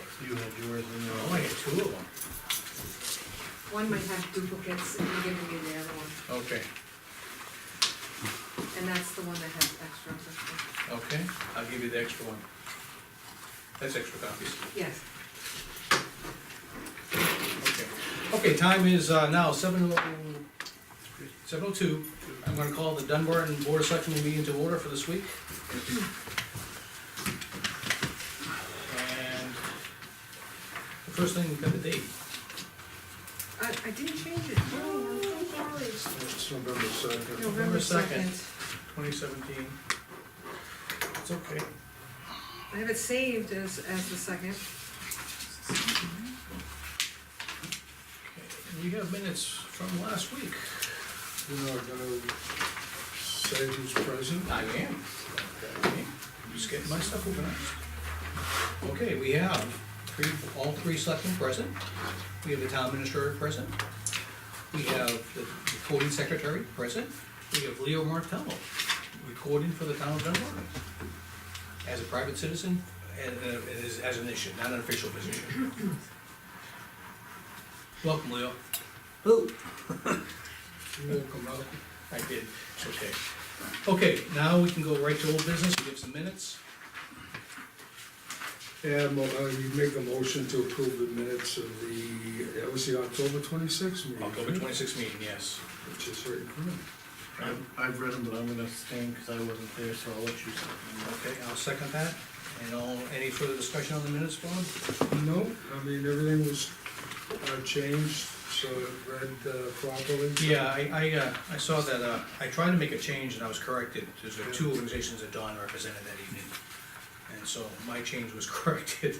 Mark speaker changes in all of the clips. Speaker 1: you had yours in
Speaker 2: I
Speaker 1: there.
Speaker 2: only got two of them.
Speaker 3: One might have duplicates, and you're giving me the other one,
Speaker 1: Okay,
Speaker 3: and that's the one that has extras, extra.
Speaker 1: okay, I'll give you the extra one. That's extra copies,
Speaker 3: yes.
Speaker 1: okay. Okay, time is uh, now seven oh, seven oh two. I'm gonna call the Dunbar and Board of Selectmen meeting to order for this week. And the first thing, we've got the date.
Speaker 3: I, I didn't change it. Oh, I'm so sorry.
Speaker 2: It's November second.
Speaker 3: November
Speaker 1: second.
Speaker 3: second.
Speaker 1: Twenty seventeen. It's okay.
Speaker 3: I have it saved as, as the second.
Speaker 1: Okay, We have minutes from last week.
Speaker 2: You know, I'm gonna say who's present.
Speaker 1: I am. Okay, Just getting my stuff organized. Okay, we have three, all three selectmen present. We have the town administrator present. We have the recording secretary present. We have Leo Martello, recording for the town of Dunbar. As a private citizen, and, uh, it is- as an issue, not an official position. Welcome, Leo. Who?
Speaker 2: You will come out.
Speaker 1: I did, it's okay. Okay, now we can go right to old business, we have some minutes.
Speaker 2: And uh, you make a motion to approve the minutes of the, that was the October twenty-sixth meeting.
Speaker 1: October twenty-sixth meeting, yes.
Speaker 2: Which is right in front of me.
Speaker 4: I've, I've read them, but I'm gonna abstain, cause I wasn't there, so I'll let you.
Speaker 1: Okay, I'll second that. And all, any further discussion on the minutes, Bob?
Speaker 2: No, I mean, everything was uh, changed, so it read uh, properly.
Speaker 1: Yeah, I, I, uh, I saw that, uh, I tried to make a change and I was corrected. There's uh, two organizations that Don represented that evening. And so my change was corrected.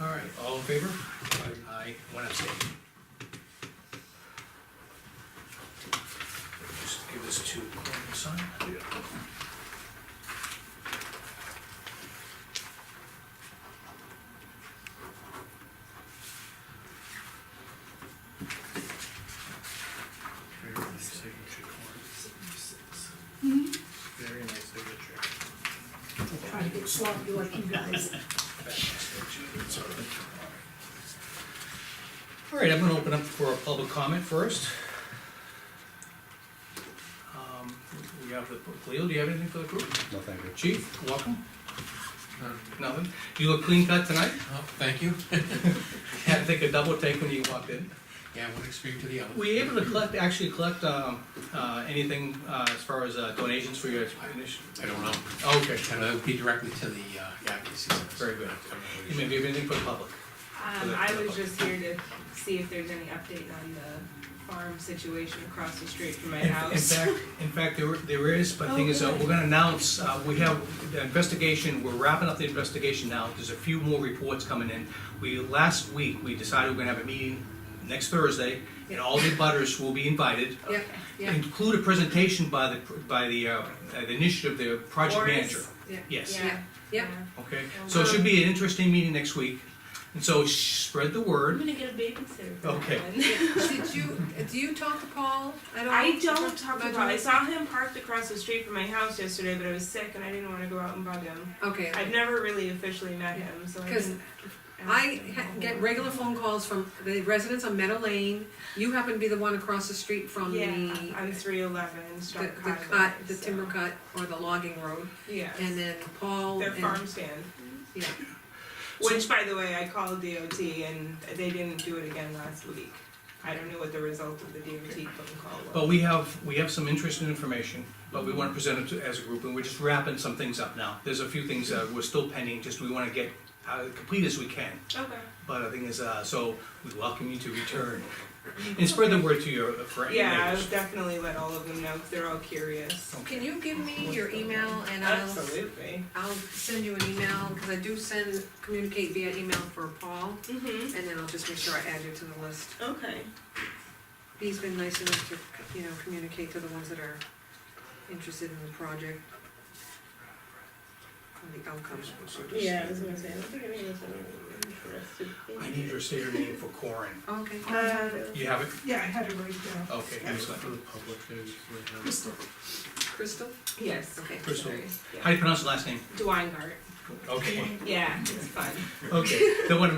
Speaker 1: All right, all in favor? Aye, one abstain. Just give this to Gordon to sign.
Speaker 4: Very nice signature, Corin. Very nice signature.
Speaker 3: Try to get sloppy like you guys.
Speaker 1: All right, I'm gonna open up for a public comment first. Um, We have the, Leo, do you have anything for the group?
Speaker 5: No, thank you.
Speaker 1: Chief, welcome. Nothing? You look clean cut tonight?
Speaker 6: Oh, thank you.
Speaker 1: Had to take a double take when you walked in.
Speaker 6: Yeah, one extreme to the other.
Speaker 1: Were you able to collect, actually collect, um, uh, anything, uh, as far as uh, donations for your initiative?
Speaker 6: I don't know.
Speaker 1: Okay,
Speaker 6: And that would be directly to the, uh, advocacy. Center.
Speaker 1: Very good.
Speaker 6: I don't know what
Speaker 1: you
Speaker 6: it
Speaker 1: may
Speaker 6: is.
Speaker 1: give anything for the public.
Speaker 7: Um, I was just here to see if there's any update on the farm situation across the street from my
Speaker 1: In- In
Speaker 7: house. Oh,
Speaker 1: fact, in fact, there, there is, but the thing is, uh, we're gonna announce, uh, we have the investigation, we're wrapping up the investigation now, there's a few more reports coming in. We, last week, we decided we're gonna have a meeting next Thursday, and all the butters will be invited.
Speaker 3: Yeah, yeah.
Speaker 1: Include a presentation by the, by the, uh, the initiative, the project
Speaker 7: Boris?
Speaker 1: manager.
Speaker 7: Yeah.
Speaker 1: Yes,
Speaker 7: Yeah,
Speaker 3: Yep.
Speaker 7: yeah. Oh,
Speaker 1: okay, so it should be an interesting meeting next week, and so sh- spread the
Speaker 8: I'm
Speaker 1: word,
Speaker 8: gonna get a babysitter. for that
Speaker 1: Okay.
Speaker 8: one.
Speaker 3: Did you, do you talk to Paul at all?
Speaker 7: I don't talk
Speaker 3: About
Speaker 7: to Paul. I
Speaker 3: you?
Speaker 7: saw him parked across the street from my house yesterday, but I was sick and I didn't wanna go out and bug him.
Speaker 3: Okay,
Speaker 7: I've never really officially met him, so I
Speaker 3: Because
Speaker 7: didn't. ask
Speaker 3: I
Speaker 7: him a
Speaker 3: ha-
Speaker 7: whole
Speaker 3: get
Speaker 7: lot.
Speaker 3: regular phone calls from the residents on Meadow Lane. You happen to be the one across the street from the,
Speaker 7: Yeah, on three eleven,
Speaker 3: the, the
Speaker 7: Stark Highway.
Speaker 3: cut, the
Speaker 7: so-
Speaker 3: timber cut or the logging road.
Speaker 7: Yes.
Speaker 3: And then Paul
Speaker 7: Their
Speaker 3: and,
Speaker 7: farm stand.
Speaker 3: yeah,
Speaker 7: Which, by the way, I called DOT and they didn't do it again last week. I don't know what the result of the DOT phone call was.
Speaker 1: but we have, we have some interesting information, but we wanna present it to- as a group, and we're just wrapping some things up now. There's a few things that we're still pending, just we wanna get, uh, complete as we can.
Speaker 7: Okay.
Speaker 1: But the thing is, uh, so we welcome you to return. And spread the word to your uh, friends.
Speaker 7: Yeah, I'll definitely let all of them know, 'cause they're all curious.
Speaker 3: Can you give me your email and I'll,
Speaker 7: Absolutely.
Speaker 3: I'll send you an email, cause I do send, communicate via email for Paul.
Speaker 7: Mm-hmm,
Speaker 3: And then I'll just make sure I add you to the list.
Speaker 7: okay.
Speaker 3: He's been nice enough to, you know, communicate to the ones that are interested in the project. Or the outcomes.
Speaker 7: Yeah, I was gonna say, I don't think any of them are interested.
Speaker 1: I need your state name for Corin.
Speaker 3: Okay.
Speaker 7: Uh,
Speaker 1: You have it?
Speaker 7: yeah, I had it right down.
Speaker 1: Okay, excellent.
Speaker 4: For the public, I just write down the stuff.
Speaker 3: Crystal?
Speaker 7: Yes.
Speaker 3: Okay.
Speaker 1: Crystal.
Speaker 7: Sorry.
Speaker 1: How do you pronounce the last name?
Speaker 7: Dweingart,
Speaker 1: Okay,
Speaker 7: yeah, it's fun.
Speaker 1: okay. Don't wanna